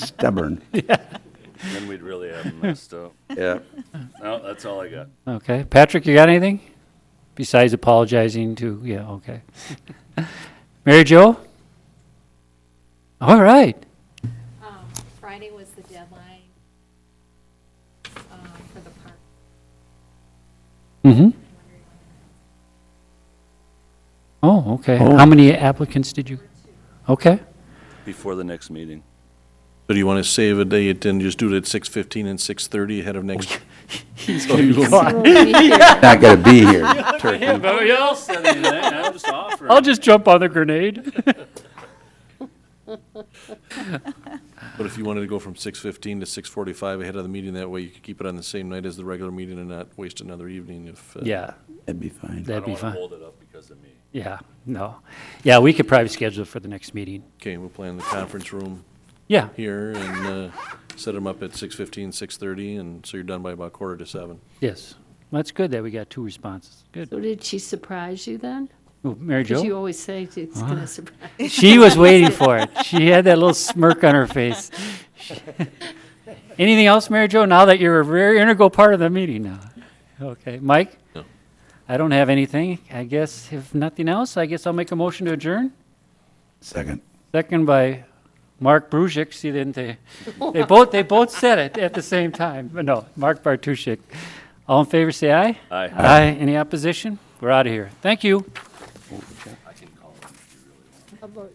Stubborn. Then we'd really have 'em messed up. Yeah. No, that's all I got. Okay. Patrick, you got anything? Besides apologizing to, yeah, okay. Mary Jo? All right. Um, Friday was the deadline um, for the park. Mm-hmm. I'm wondering whether Oh, okay. Oh. How many applicants did you? Okay. Before the next meeting. So do you want to save a date and just do it at six fifteen and six thirty ahead of next? Not gonna be here. Nobody else said anything. I'm just offering. I'll just jump on the grenade. But if you wanted to go from six fifteen to six forty-five ahead of the meeting, that way you could keep it on the same night as the regular meeting and not waste another evening if. uh, Yeah, That'd be fine. I that'd don't be want to fine. hold it up because of me. Yeah, no. Yeah, we could probably schedule it for the next meeting. Okay, we'll plan the conference room Yeah, here and uh, set them up at six fifteen, six thirty, and so you're done by about quarter to seven. yes. That's good that we got two responses. Good. So did she surprise you then? Oh, Mary Because you Jo? always say it's going to surprise. She was waiting for it. She had that little smirk on her face. Anything else, Mary Jo, now that you're a very integral part of the meeting now? Okay, Mike? No. I don't have anything. I guess if nothing else, I guess I'll make a motion to adjourn. Second. Second by Mark Brusick, see, didn't they, they both, they both said it at the same time, but no, Mark Bartuszczyk. All in favor, say aye. Aye. Aye. Any opposition? We're out of here. Thank you.